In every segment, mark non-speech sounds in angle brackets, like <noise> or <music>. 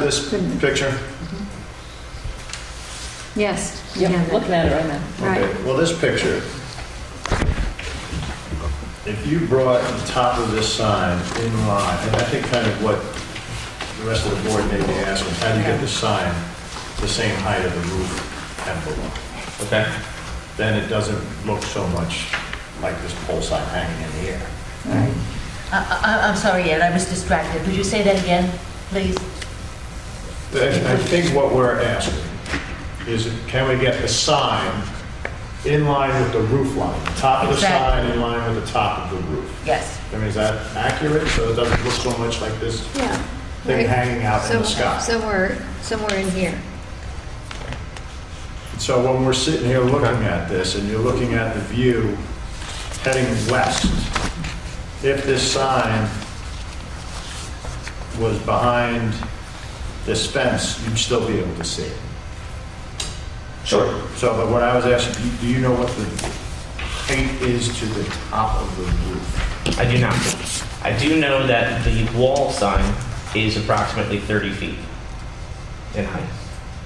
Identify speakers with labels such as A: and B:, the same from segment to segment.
A: This picture?
B: Yes. we
C: Yeah,
B: have
C: I'm
B: it.
C: looking at it right now.
B: Right,
A: Okay, Well, this picture, if you brought the top of this sign in line, and I think kind of what the rest of the board may be asking, how do you get the sign the same height of the roof and below? Okay. Then it doesn't look so much like this pole sign hanging in the air.
D: I- I- I'm sorry, Ed, I was distracted. Would you say that again, please?
A: I I think what we're asking is, can we get the sign in line with the roof line? Top of the
D: Exactly.
A: sign in line with the top of the roof?
D: Yes.
A: I mean, is that accurate? So it doesn't look so much like this
B: yeah.
A: thing
B: Right.
A: hanging out in the
B: Some-
A: sky?
B: Somewhere, somewhere in here.
A: So when we're sitting here looking at this, and you're looking at the view heading west, if this sign was behind this fence, you'd still be able to see it.
E: Sure.
A: So, but what I was asking, do- do you know what the height is to the top of the roof?
E: I do not. I do know that the wall sign is approximately 30 feet in height.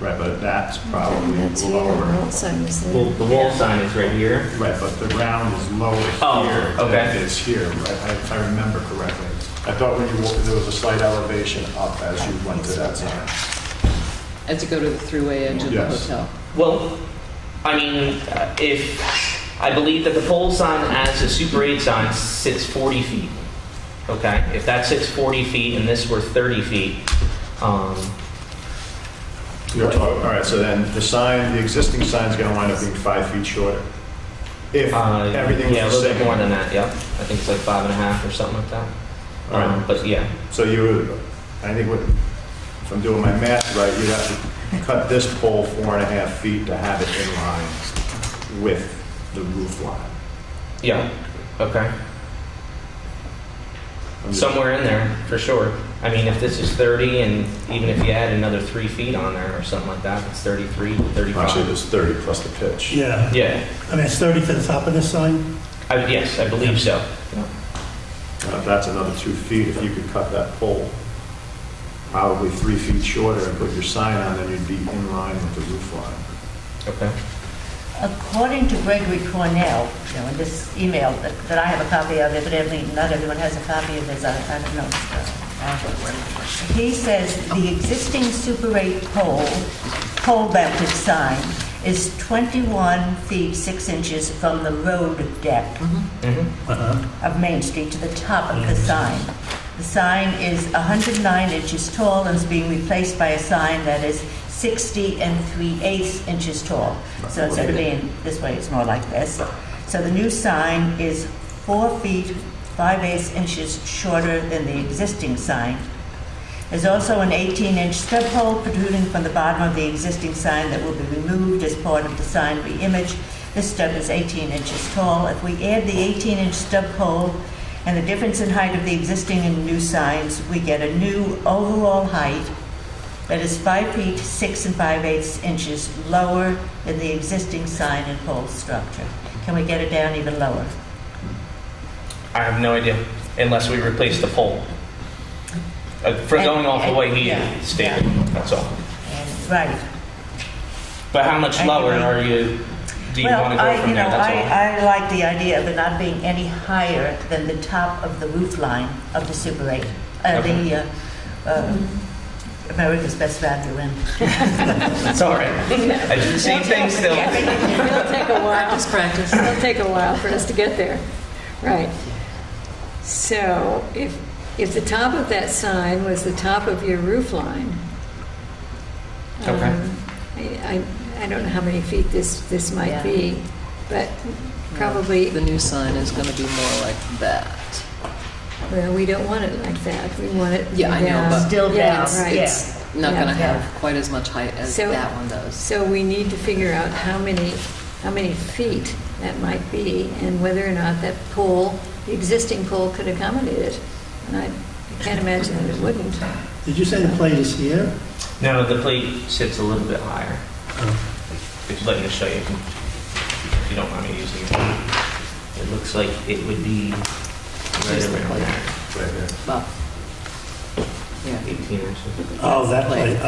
A: Right, but that's probably
B: That's here,
A: lower.
B: Well, so is the-
E: Well, the wall sign is right here.
A: Right, but the ground is lower
E: Oh,
A: here than
E: okay.
A: it is here, right? I- If I remember correctly. I thought when you walked, there was a slight elevation up as you went to that side.
C: As you go to the throughway edge of the
A: Yes.
C: hotel.
E: Well, I mean, uh, if I believe that the pole sign as a Super 8 sign sits 40 feet. Okay, if that sits 40 feet and this were 30 feet, um,
A: You're talking, all right, so then the sign, the existing sign's gonna wind up being five feet shorter. If
E: uh,
A: everything
E: yeah, a
A: was
E: little
A: the
E: bit more
A: same.
E: than that. Yep, I think it's like five and a half or something like that.
A: All right.
E: Um, but yeah,
A: So you, would- I think what, if I'm doing my math right, you'd have to cut this pole four and a half feet to have it in line with the roof line.
E: yeah, okay.
A: I'm just-
E: somewhere in there for sure. I mean, if this is 30, and even if you add another three feet on there or something like that, it's 33, 35.
A: Actually, there's 30 plus the pitch.
F: Yeah,
E: yeah,
F: I mean, it's 30 to the top of this sign?
E: I, yes, I believe so.
A: Uh, That's another two feet. If you could cut that pole probably three feet shorter and put your sign on, then you'd be in line with the roof line.
E: Okay.
D: According to Gregory Cornell, you know, in this email that that I have a copy of, evidently not everyone has a copy of this, I I don't know. He says the existing Super 8 pole, pole mounted sign is 21 feet 6 inches from the road depth
E: hmm
F: Uh-huh.
D: of Main Street to the top of the sign. The sign is 109 inches tall and is being replaced by a sign that is 60 and 3 eighths inches tall. So instead of being this way, it's more like this. So the new sign is 4 feet 5 eighths inches shorter than the existing sign. There's also an 18-inch stub pole protruding from the bottom of the existing sign that will be removed as part of the sign reimage. This stub is 18 inches tall. If we add the 18-inch stub pole and the difference in height of the existing and new signs, we get a new overall height that is 5 feet 6 and 5 eighths inches lower than the existing sign and pole structure. Can we get it down even lower?
E: I have no idea, unless we replace the pole. Uh, for
D: And-
E: going off the
D: and-
E: way he
D: yeah,
E: stated, that's all.
D: And- Right.
E: But how much
D: And-
E: lower are you? Do you want to go
D: Well, I,
E: from
D: you
E: there?
D: know,
E: that's all.
D: I, I like the idea of it not being any higher than the top of the roof line of the Super 8, uh, the, uh, uh, America's Best Value Inn.
E: It's all right.
D: <laughs>
E: I do the same thing still.
B: It'll take a while. Practice, practice. It'll take a while for us to get there. Right. So if, if the top of that sign was the top of your roof line.
E: Okay.
B: um, I, I- I don't know how many feet this, this might
D: Yeah.
B: be, but probably,
C: The new sign is going to be more like that.
B: well, we don't want it like that. We want it.
C: Yeah, I know,
B: down.
C: but
D: Still
B: Yeah,
D: down,
B: right.
D: yeah.
C: It's not
B: Yeah.
C: going to
D: Yeah.
C: have quite as much height as
B: So-
C: that one does.
B: So we need to figure out how many, how many feet that might be and whether or not that pool, the existing pool could accommodate it. And I I can't imagine that it wouldn't.
F: Did you say the plate is here?
E: No, the plate sits a little bit higher. Just letting us show you, if you don't mind me using it. It looks like it would be right around there.
A: Right there.
C: But
E: Yeah.
G: 18 inches.
F: Oh, that
E: Plate.
F: Oh, plate.